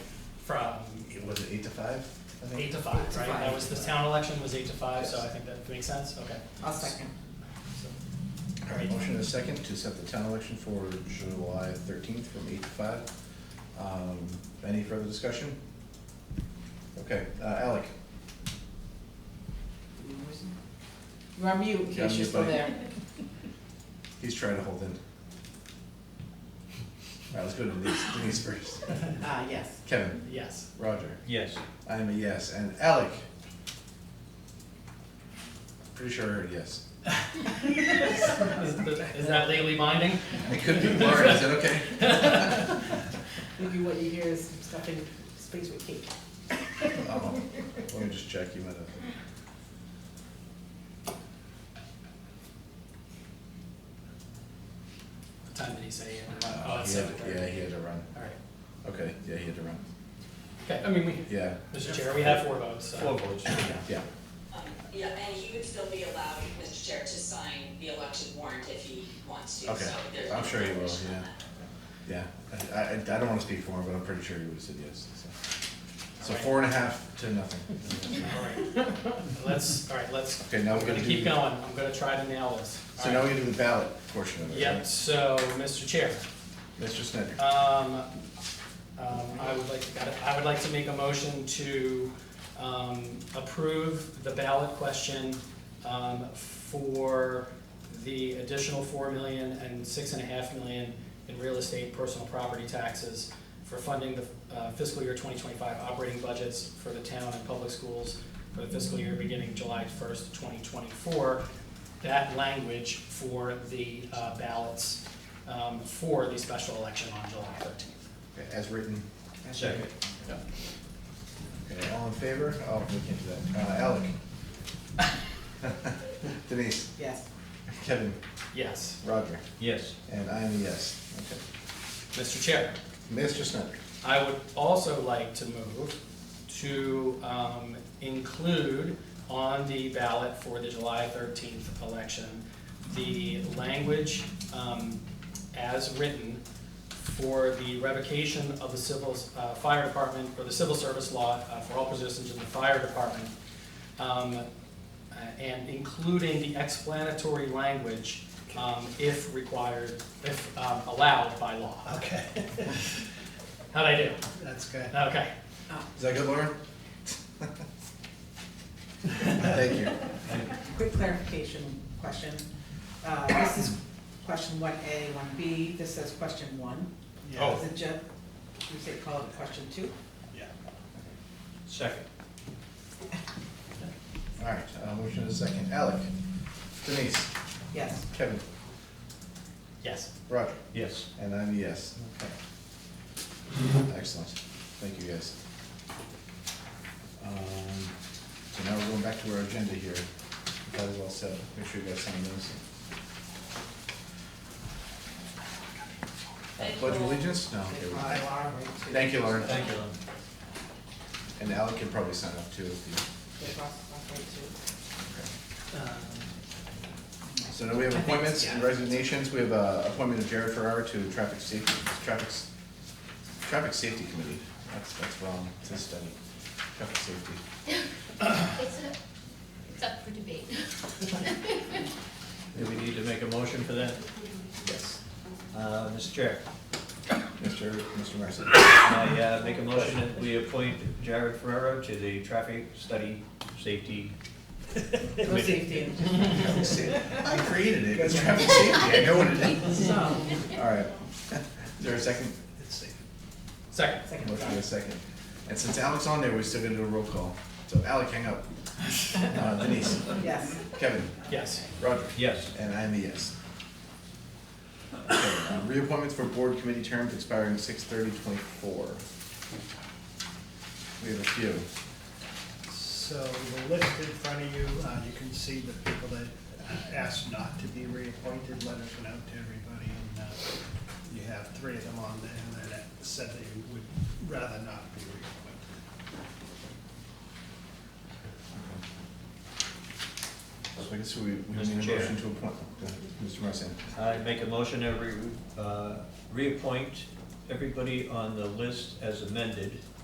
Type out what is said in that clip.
from It was it eight to five, I think? eight to five, Eight to right? five. That was, the town election was eight to five, so I Yes. think that makes sense, okay. I'll second. So, All right, motion and a second to set the town election for July thirteenth from eight to five. Um, Any further discussion? Okay, uh, Alec? You're on mute, Yeah, in case you're mute still button. there. He's trying to hold in. All right, let's go to Denise, Denise first. Ah, yes. Kevin, Yes, Roger, Yes. I am a yes, and Alec? Pretty sure I heard yes. is is that legally binding? It could be, Laura, is that okay? Maybe what you hear is stuffing space with cake. Oh, Let me just check, you might have. What time did he say? he had to run? Oh, it's uh, He had- seven thirty. Yeah, he had to run. All right, Okay, yeah, he had to run. okay, I mean, we, Yeah, Mr. Chair, we have four votes, so. Four votes. yeah. Um, Yeah, and he would still be allowed, Mr. Chair, to sign the election warrant if he wants to, so Okay. there's. I'm no sure he will, prohibition on yeah. that. Yeah, I, I, I don't wanna speak for him, but I'm pretty sure he would've said yes, so. So Alright. four and a half to nothing. All right, let's, all right, let's, Okay, now I'm we're gonna gonna keep do, going, I'm gonna try to nail this. All so now right. we can do the ballot portion of it, Yep, right? so, Mr. Chair, Mr. Snyder, Um, um, I would like, to- I would like to make a motion to, um, approve the ballot question, um, for the additional four million and six and a half million in real estate personal property taxes for funding the uh, fiscal year twenty twenty-five operating budgets for the town and public schools for the fiscal year beginning July first, twenty twenty-four. That language for the uh, ballots um, for the special election on July thirteenth. as written. Second. Yeah. Okay, all in favor? Oh, we can't do that. Uh, Alec? Denise, Yes. Kevin, Yes, Roger, Yes. and I'm a yes, okay. Mr. Chair, Mr. Snyder, I would also like to move to um, include on the ballot for the July thirteenth election, the language um, as written for the revocation of the civil, uh, fire department, or the civil service law uh, for all positions in the fire department, um, uh, and including the explanatory language um, if required, if um, allowed by law. Okay, How'd I do? that's good. Okay. Uh, is that good, Laura? Thank you. Quick clarification question. Uh, this is question one A, one B. This says question one. Yeah. Oh. Is it just, you say call it question two? Yeah. Second. All right, uh, motion is second. Alec, Denise, Yes. Kevin, Yes. Roger, Yes. and I'm a yes. Okay. Excellent. Thank you, guys. Um, So now we're going back to our agenda here. That is all set. Make sure you guys sign those. Thank Pledge of you. allegiance? No. okay, They we- call it alarm rate two. Thank you, Lauren. Thank you. And Alec can probably sign up too if you. They call it alarm rate two. Um, So now we have appointments and resignations. We have uh appointment of Jared Farrar to Traffic Safety, Traffic, S- Traffic Safety Committee. That's, that's wrong, it's a study, traffic safety. It's a, it's up for debate. Do we need to make a motion for that? Yes. Uh, Mr. Chair, Mr. Mr. Marson. I uh, make a motion that we appoint Jared Ferrero to the Traffic Study Safety No Committee. safety. Traffic safety. I created it, it's traffic safety, I know what it is. So, All right. Is there a second? It's safe. Second. second Motion thought. and a second. And since Alec's on there, we're still gonna do a roll call. So Alec, hang up. Uh, Denise, Yes. Kevin, Yes. Roger. Yes. And I'm a yes. Okay, uh, Reappointments for board committee terms expiring six thirty twenty-four. We have a few. So the list in front of you, uh, you can see the people that uh, asked not to be reappointed, letters went out to everybody, and uh, you have three of them on there that said they would rather not be reappointed. So I guess we, we Mr. need a Chair. motion to appoint, Go ahead, Mr. Marson. I make a motion that we uh, reappoint everybody on the list as amended